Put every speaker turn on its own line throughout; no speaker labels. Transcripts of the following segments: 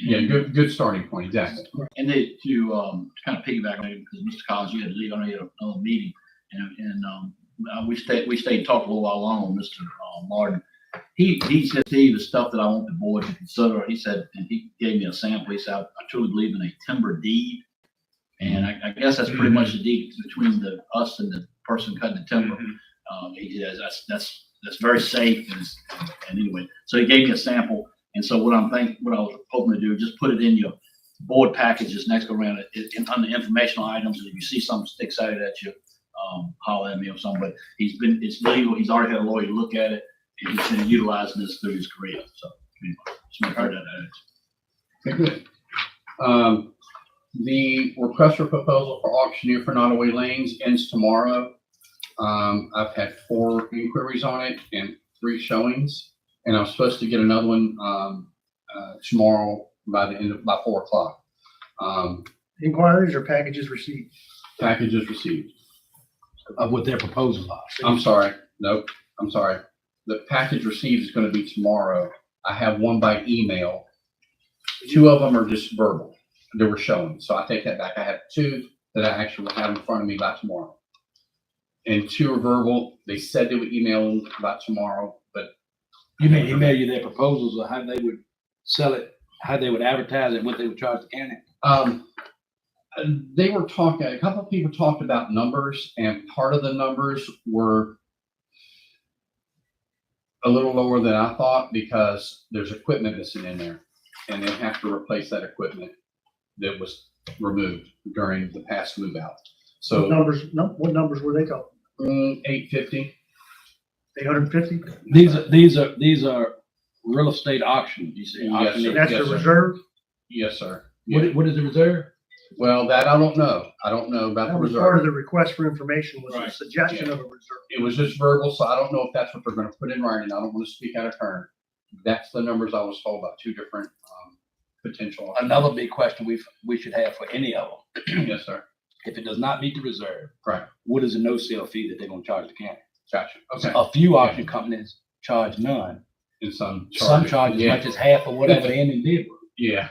Yeah, good, good starting point, exactly.
And they, to, um, kind of piggyback on it, because Mr. Collins, you had to leave on a, another meeting, and, and, um, uh, we stayed, we stayed, talked a little while long, Mr. uh, Martin. He, he said, Steve, the stuff that I want the board to consider, he said, and he gave me a sample, he said, I I truly believe in a timber deed. And I, I guess that's pretty much the deed between the, us and the person cutting the timber. Um, he, that's- that's, that's, that's very safe and, and anyway, so he gave me a sample. And so what I'm thinking, what I was hoping to do, just put it in your board packages next go around, it, it, on the informational items, and if you see something sticks out at you, um, holler at me or something, but he's been, it's legal, he's already had a lawyer look at it, and he's been utilizing this through his career, so. anyway, just wanna throw that out.
Okay, good. Um, the request for proposal for auctioneer for Nottaway Lanes ends tomorrow. Um, I've had four inquiries on it and three showings, and I'm supposed to get another one, um, uh, tomorrow by the end of, by four o'clock. Um,
Inquiries or packages received?
packages received.
of what their proposal are.
I'm sorry, nope, I'm sorry. The package received is gonna be tomorrow. I have one by email. Two of them are just verbal, they were showing, so I take that back. I have two that I actually have in front of me by tomorrow. And two are verbal, they said they would email them by tomorrow, but
You may email you their proposals of how they would sell it, how they would advertise it, what they would charge the county.
Um, they were talking, a couple of people talked about numbers and part of the numbers were a little lower than I thought because there's equipment missing in there and they have to replace that equipment that was removed during the past move out.
What
So,
numbers, no, what numbers were they talking?
eight fifty,
Eight hundred and fifty?
These are, these are, these are real estate auctions, you say.
Yes,
auctioneer.
sir.
That's the
Yes,
reserve?
yes, sir.
What,
Yeah.
i- what is the reserve?
Well, that I don't know. I don't know about the
That was part
reserve.
of the request for information was a
Right.
suggestion of a reserve.
It was just verbal, so I don't know if that's what they're gonna put in writing. I don't wanna speak out of turn. That's the numbers I was told by two different, um, potential.
Another big question we, we should have for any of them,
Yes, sir.
if it does not meet the reserve.
Right.
What is the no sale fee that they're gonna charge the county?
Gotcha. Okay.
A few auction companies charge none.
And some.
Some charge as
Yeah.
much as half of whatever the ending bid was.
Yeah.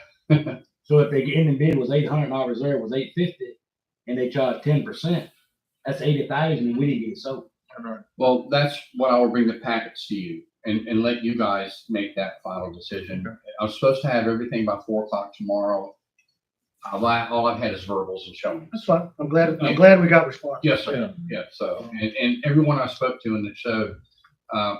So if the ending bid was eight hundred, our reserve was eight fifty, and they charged ten percent, that's eighty thousand, and we didn't get it sold.
Well, that's what I will bring the packets to you and, and let you guys make that final decision. I'm supposed to have everything by four o'clock tomorrow. All I, all I've had is verbals and showing.
That's fine. I'm glad,
Yeah.
I'm glad we got response.
Yes, sir. Yeah, so, and, and everyone I spoke to in the show, uh,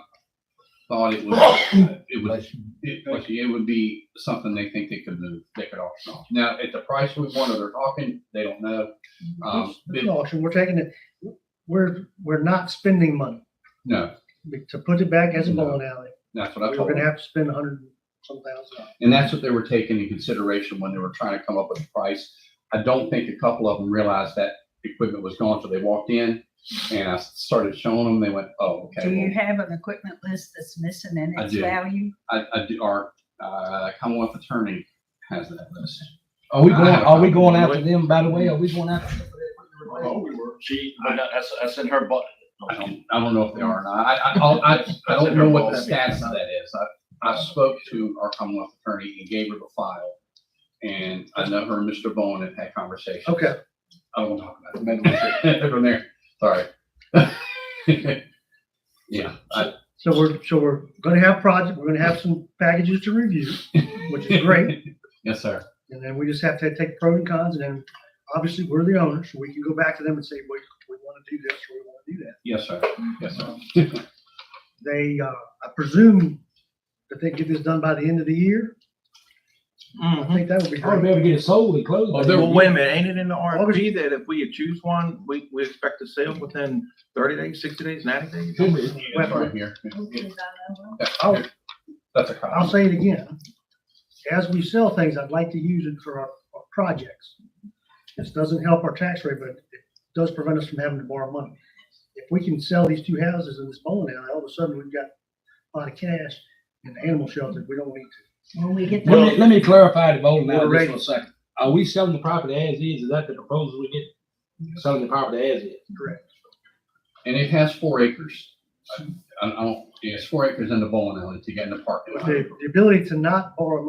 thought it was, it was it, like, it would be something they think they could move, they could auction off. Now, at the price we want, or they're talking, they don't know. Um,
It's- it's an auction. We're taking it, we're, we're not spending money.
No,
To put it back as a
No.
bowling alley,
that's what I
we're
told
gonna
them.
have to spend a hundred and some thousand dollars.
And that's what they were taking in consideration when they were trying to come up with a price. I don't think a couple of them realized that equipment was gone, so they walked in and I started showing them, they went, oh,
Do you
okay.
have an equipment list that's missing in
I
its
do.
value?
well, I, I do, our, uh, Commonwealth Attorney has that list.
Are we going,
I have a
are we going
copy.
after them, by the way, are we going after? them for their equipment replacement?
She, I, that's, that's in her butt.
I don't, I don't know if they are or not. I, I, I'll- I, I don't know what the status of that is. I, I spoke to our Commonwealth attorney and gave her the file. And I know her and Mr. Bowen have had conversations.
Okay.
I won't talk about
Maybe we should-
it from there. Sorry. Yeah, I,
So we're, so we're gonna have project, we're gonna have some packages to review, which is great.
yes, sir.
And then we just have to take pros and cons and then obviously we're the owner, so we can go back to them and say, we, we wanna do this or we wanna do that.
Yes, sir. Yes, sir.
They, uh, I presume that they get this done by the end of the year. I think that would be
I would be
great.
able to get it sold and closed. by
Well,
then.
wait a minute, ain't it in the
August-
RFP that if we choose one, we, we expect to sell within thirty days, sixty days, ninety days?
Could be.
That's right here.
Because I don't know.
Oh.
I'll,
That's a
I'll
copy.
say it again. As we sell things, I'd like to use it for our, our projects. This doesn't help our tax rate, but it does prevent us from having to borrow money. If we can sell these two houses in this bowling alley, all of a sudden we've got a lot of cash in the animal shelter. We don't need to.
When we get
Let me,
the,
let me clarify the bowling
We're
alley
ready.
just for a second. Are we selling the property as is? Is that the proposal we get? Selling the property as is?
Correct.
And it has four acres. I, I don't, it's four acres in the bowling alley to get in the parking lot.
The, the ability to not borrow money